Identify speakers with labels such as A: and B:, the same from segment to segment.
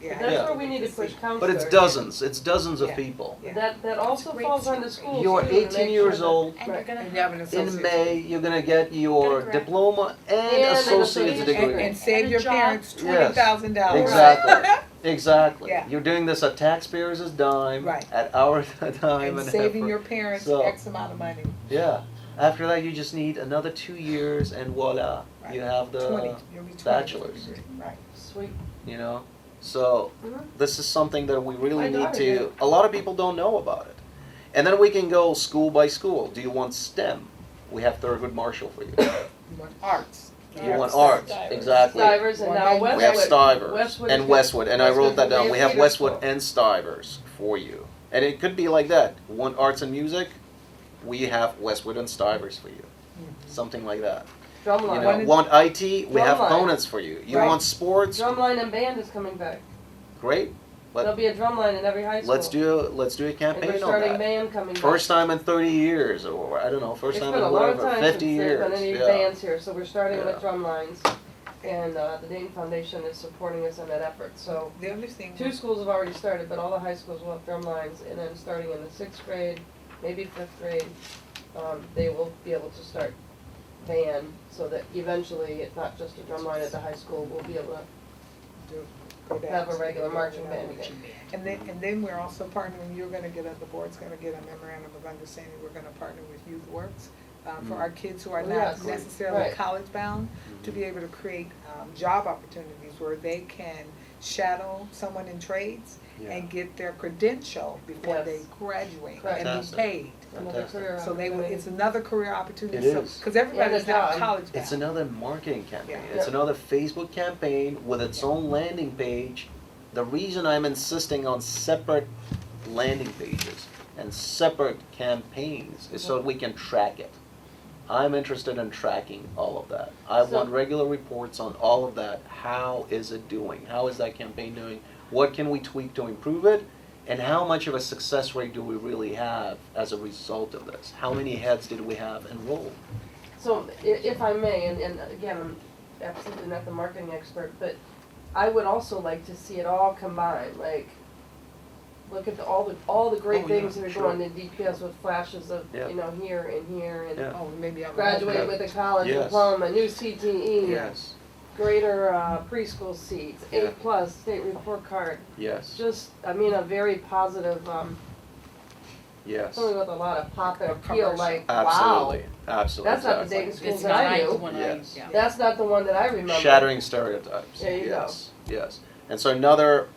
A: Yeah.
B: That's
C: Yeah.
B: where we need to push counselors.
C: But it's dozens, it's dozens of
A: Yeah.
C: people.
A: Yeah.
B: That, that also
D: Great
B: falls on the
D: secret.
B: schools.
C: You're
B: too, to make
C: 18
B: sure
C: years
B: that-
C: old.
D: And you're gonna
A: And you have an
C: In
A: associate's.
C: May, you're gonna get your
D: Correct.
C: diploma and
B: And an
C: associate's
B: associate's
A: And,
C: degree.
A: and save
D: And a
A: your
D: job.
A: parents
C: Yes.
A: twenty thousand dollars.
C: Exactly, exactly.
A: Yeah.
C: You're doing this at taxpayers' dime,
A: Right.
C: at our time
A: And
C: and
A: saving
C: effort.
A: your parents
C: So-
A: X amount of money,
C: Yeah. After that, you just need another two years and voila, you have
A: twenty,
C: the,
A: you'll be twenty.
C: bachelor's.
A: Right.
B: Sweet.
C: you know? So,
B: Mhm.
C: this is something that we
B: I
C: really need
B: doubt
C: to,
B: it.
C: a lot of people don't know about it. And then we can go school by school. Do you want STEM? We have Thurgood Marshall for you.
A: You want arts.
C: Do you want arts? Exactly.
B: Stivers and now
A: Well,
C: We have
B: Westwood.
C: Stivers
B: Westwood
C: and
B: is-
C: Westwood, and I wrote
B: Westwood
C: that down.
B: is
C: We have
B: beautiful.
C: Westwood and Stivers for you. And it could be like that. One arts and music, we have Westwood and Stivers for you.
B: Mm-hmm.
C: Something like that. You
B: Drumline.
C: know, want IT, we have
B: Drumline.
C: Conants for you. You
B: Right.
C: want sports,
B: Drumline and band is coming back.
C: great.
B: There'll
C: Let,
B: be a drumline in every high school.
C: let's do, let's do a campaign
B: And we're
C: on
B: starting
C: that.
B: band coming back.
C: First time in thirty years, or I don't know, first time in whatever, fifty years, yeah.
B: It's been a long time since there's been any bands here, so we're starting with
C: Yeah.
B: drumlines. And uh, the Dayton Foundation is supporting us in that effort, so.
A: The other thing,
B: Two schools have already started, but all the high schools will have drum lines, and then starting in the sixth grade, maybe fifth grade, um, they will be able to start band, so that eventually, it's not just a drum line at the high school, we'll be able to,
A: go back
B: have a
A: to
B: regular
A: the-
B: marching band
A: what you
B: again.
A: need. And then, and then we're also partnering, you're gonna get, a- the board's gonna get a memorandum of understanding, we're gonna partner with Youth Works uh, for our kids who are not
B: Yes,
A: necessarily
B: right.
A: college bound, to be able to create um, job opportunities where they can shadow someone in trades and get their credential before
B: Yes.
A: they graduate and be
C: Fantastic.
A: paid.
B: another
C: Fantastic.
B: career
A: So they will,
B: opportunity.
A: it's another career opportunity,
C: It
A: so,
C: is.
A: cause everybody's
B: Yeah,
A: not
B: the job.
A: college bound.
C: It's another marketing campaign.
A: Yeah.
C: It's
B: Yeah.
C: another Facebook campaign with its own landing page. The reason I'm insisting on separate landing pages and separate campaigns is so we can track it. I'm interested in tracking all of that. I
B: So-
C: want regular reports on all of that. How is it doing? How is that campaign doing? What can we tweak to improve it? And how much of a success rate do we really have as a result of this? How many heads did we have enrolled?
B: So i- if I may, and, and again, I'm absolutely not the marketing expert, but I would also like to see it all combined, like, look at the, all the, all the
C: Oh,
B: great
C: yeah,
B: things that are
C: sure.
B: going in DPS with flashes of,
C: Yeah.
B: you know, here and here and
C: Yeah.
A: Oh, maybe I'm.
B: graduate with a college
C: Yes.
B: diploma, new CTE, greater uh, preschool seats, A
C: Yeah.
B: plus state report card.
C: Yes.
B: Just, I mean, a very positive, um,
C: Yes.
B: something with a lot of pop and appeal.
A: Commercial.
B: Like, Hmm. wow,
C: Absolutely. Absolutely.
B: that's not the
C: exactly.
B: Dayton schools that I knew.
C: Yes.
B: That's not the one that I remember.
C: Shattering stereotypes.
B: There you go.
C: yes. Yes. And so another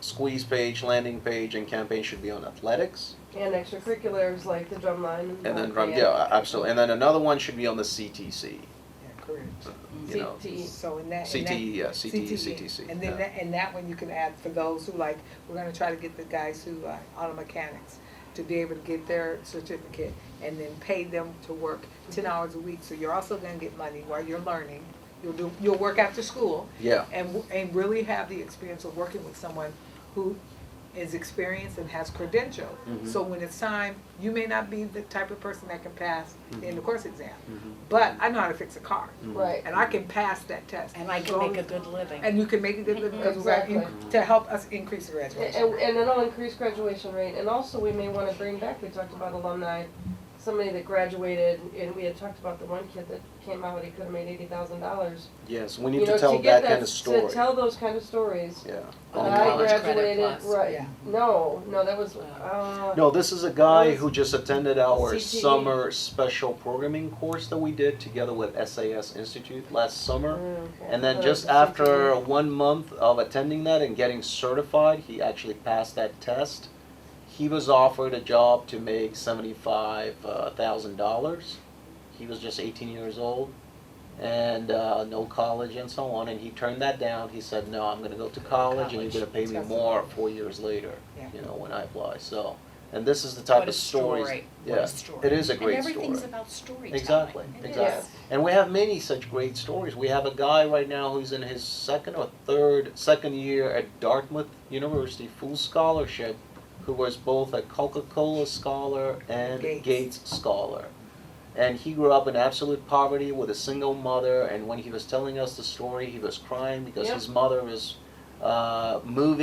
C: squeeze page, landing page, and campaign should be on athletics,
B: And extracurriculars like the drumline and,
C: and then
B: rock
C: from
B: band,
C: yeah, absolutely. And then another one should be on the CTC.
A: Yeah, career.
C: You know,
B: CTE.
A: So in that, in that.
C: CTE, yeah, E, CTE,
A: CTE.
C: CTC.
A: E. And
C: yeah.
A: then that, and that one you can add for those who like, we're gonna try to get the guys who are auto mechanics to be able to get their certificate and then pay them to work ten
D: Mm-hmm.
A: hours a week, so you're also gonna get money while you're learning. You'll do, you'll work after school
C: yeah.
A: and, w- and really have the experience of working with someone who is experienced and has credential.
C: Mhm.
A: So when it's time, you may not be the type of person that can pass the end of course exam,
C: Mhm.
A: but I know how to fix a car.
C: Mhm.
B: Right.
A: And I can pass that test.
D: And I can make a good living.
A: And you can make it good living as well, in-
B: Exactly.
A: to help us increase the
B: And,
A: graduation.
B: and and it'll increase graduation rate, and also we may wanna bring back, we talked about alumni, somebody that graduated, and we had talked about the one kid that came out, he could've made eighty thousand dollars.
C: Mm-hmm. Yes. We need
B: You know,
C: to tell
B: get
C: that kind of story.
B: To tell those kind of stories.
C: yeah. Oh
D: On
B: That
D: the
B: I
D: college credit
B: graduated,
D: plus.
B: right,
A: Yeah.
B: no, no, that was, uh,
C: No, this is a guy
B: Yes.
C: who just attended our
B: CTE.
C: summer special programming course that we did together with SAS Institute last summer.
B: okay.
C: And then
B: Uh,
C: just
B: something-
C: after one month of attending that and getting certified, he actually passed that test. He was offered a job to make seventy-five thousand dollars. He was just eighteen years old and uh, no college and so on. And he turned that down. He said, "No, I'm going to go to college, and you're going to pay me
A: College.
C: more four years later."
A: Yeah.
C: You know, when I apply. So, and this is the type
D: What a
C: of stories.
D: story. What
C: Yeah,
D: a story.
C: it is a great story.
D: And everything's about storytelling.
C: Exactly,
D: It is.
C: exactly. And we have many such great stories. We have a guy right now who's in his second or third, second year at Dartmouth University, full scholarship, who was both a Coca-Cola scholar and
A: Gates.
C: Gates scholar. And he grew up in absolute poverty with a single mother, and when he was telling us the story, he was crying because
B: Yep.
C: his mother was uh, moving